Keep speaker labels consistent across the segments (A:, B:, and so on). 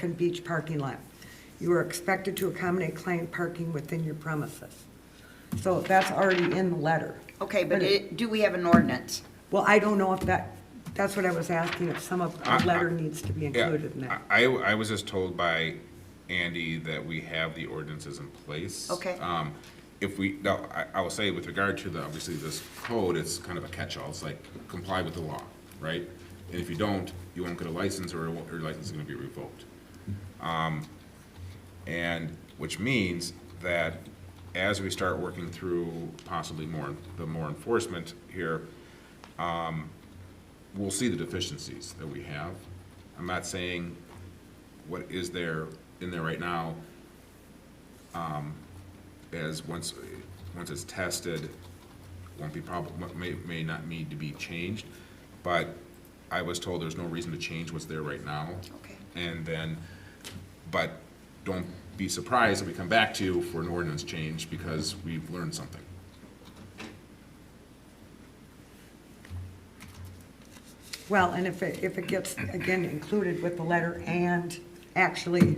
A: Pelican Beach parking lot. You are expected to accommodate client parking within your premises. So that's already in the letter.
B: Okay, but it, do we have an ordinance?
A: Well, I don't know if that, that's what I was asking, if some of
C: I-
A: the
C: I-
A: letter needs to be
C: Yeah,
A: included in that.
C: I, I was just told by Andy that we have the ordinances in place.
B: Okay.
C: Um, if we, now, I, I will say with regard to the, obviously this code, it's kind of a catch-all, it's like comply with the law, right? And if you don't, you won't get a license or your license is gonna be revoked. Um, And, which means that as we start working through possibly more, the more enforcement here, um, we'll see the deficiencies that we have. I'm not saying what is there in there right now, um, as once, once it's tested, won't be prob, may, may not need to be changed. But I was told there's no reason to change what's there right now.
B: Okay.
C: And then, but don't be surprised if we come back to you for an ordinance change because we've learned something.
A: Well, and if it, if it gets, again, included with the letter and actually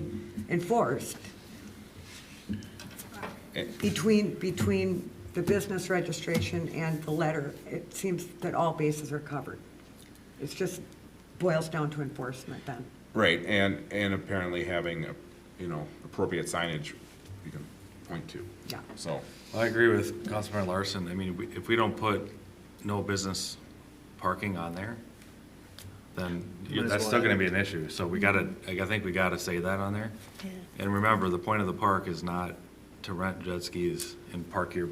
A: enforced between, between the business registration and the letter, it seems that all bases are covered. It's just boils down to enforcement then.
C: Right, and, and apparently having, a you know, appropriate signage you can point to.
A: Yeah.
C: So,
D: I agree with Councilman Larson. I mean, we- if we don't put no business parking on there, then you- that's still gonna be an issue. So we gotta, I I think we gotta say that on there. And remember, the point of the park is not to rent jet skis and park your,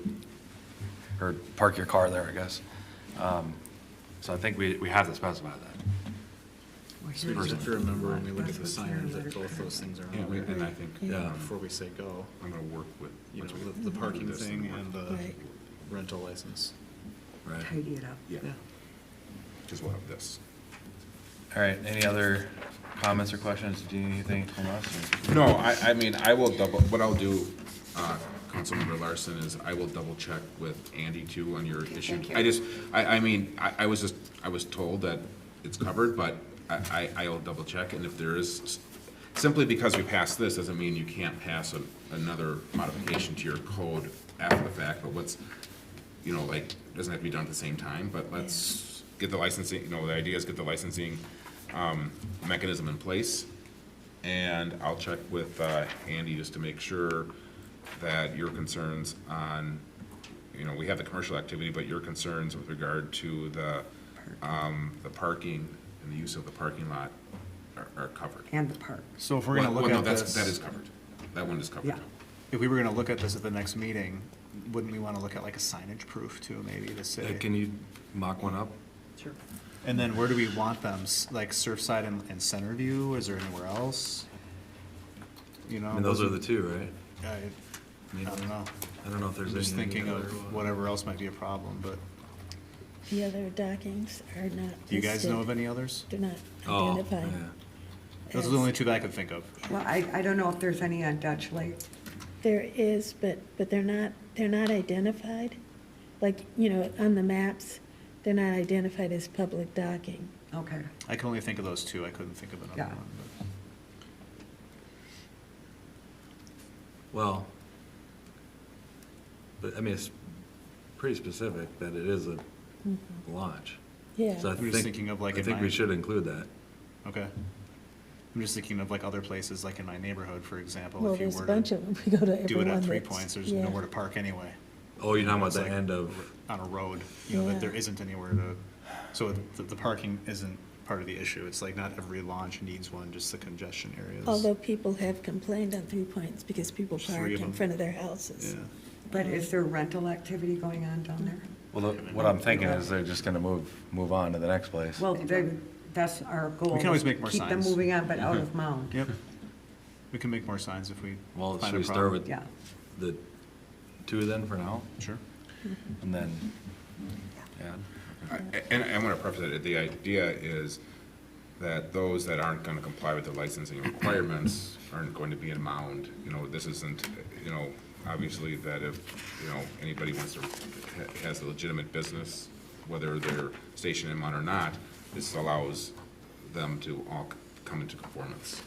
D: or park your car there, I guess. Um, So I think we, we have to specify that.
E: So we just have to remember when we look at the signage that both those things are
C: yeah,
E: on
C: we- and I
E: there.
C: think
D: Yeah.
E: Before we say go,
C: I'm gonna work with,
E: you know, the- the parking
C: This and
E: thing
C: work.
E: and the
F: Right.
E: rental license.
D: Right.
A: Tidy it up.
C: yeah,
E: Yeah.
C: because we'll have this.
D: All right, any other comments or questions? Do you need anything from us? or-
C: No, I, I mean, I will double, what I'll do, uh, Councilmember Larson, is I will double check with Andy too on your issue.
B: thank you.
C: I just, I, I mean, I, I was just, I was told that it's covered, but I, I, I will double check, and if there is, simply because we passed this doesn't mean you can't pass an- another modification to your code after the fact, but what's, you know, like, doesn't have to be done at the same time, but let's get the licensing, you know, the idea is get the licensing, um, mechanism in place, and I'll check with uh, Andy just to make sure that your concerns on, you know, we have the commercial activity, but your concerns with regard to the, um, the parking and the use of the parking lot are, are covered.
A: And the park.
E: So if we're gonna
C: Well,
E: look
C: no,
E: at
C: that's- That is
E: this,
C: covered. That one is covered.
A: Yeah.
E: if we were gonna look at this at the next meeting, wouldn't we wanna look at like a signage proof too, maybe to
D: Uh,
E: say?
D: Can you mock one up?
A: Sure.
E: And then where do we want them? S- Like Surfside and, and Centerview? Is there anywhere else? You know?
D: I mean, those are the two, right?
E: I,
D: Um,
E: I don't know.
D: I don't know if there's
E: I'm
D: any.
E: just thinking of whatever else might be a problem, but
F: The other dockings are not.
E: do you guys
F: listed.
E: know of any others?
F: They're not
D: Oh,
F: identified.
D: yeah.
E: Those are the
F: as-
E: only two that I could think of.
A: Well, I, I don't know if there's any on Dutch Lake.
F: There is, but, but they're not, they're not identified. Like, you know, on the maps, they're not identified as public docking.
A: Okay.
E: I can only think of those two. I couldn't think of another
A: Yeah.
E: one. but-
D: Well, but, I mean, it's pretty specific that it is a
A: Mm-hmm.
D: launch.
F: Yeah.
D: So I
E: I'm just
D: think-
E: thinking of like
D: I
E: in
D: think
E: my-
D: we should include that.
E: Okay. I'm just thinking of like other places, like in my neighborhood, for example,
F: Well,
E: if you
F: there's a
E: were
F: bunch
E: to
F: of them. We go to everyone.
E: do it at three
F: that's-
E: points, there's
F: yeah.
E: nowhere to park anyway.
D: Oh, you're talking about the
E: It's like-
D: end of,
E: on a road, you know, that there
F: Yeah.
E: isn't anywhere to, so the, the parking isn't part of the issue. It's like not every launch needs one, just the congestion areas.
F: Although people have complained on three points because people
E: Three
F: park
E: of
F: in
E: them.
F: front of their
E: Yeah,
F: houses.
A: But is there rental activity going on down there?
D: well, the- what I'm thinking is they're just gonna move, move on to the next place.
A: Well, they, that's our goal.
E: We can always make more
A: Keep them
E: signs. Mm-hmm.
A: moving on, but out of Mound.
E: yep. We can make more signs if we
D: Well,
E: find
D: should
E: a
D: we start
E: problem.
D: with
A: Yeah.
D: the two then for now,
E: Sure.
D: and then,
A: Mm-hmm.
D: yeah,
C: A- And I want to preface it, the idea is that those that aren't going to comply with the licensing requirements aren't going to be in mound. You know, this isn't, you know, obviously that if, you know, anybody wants to, ha- has a legitimate business, whether they're stationed in mound or not, this allows them to all c- come into conformance.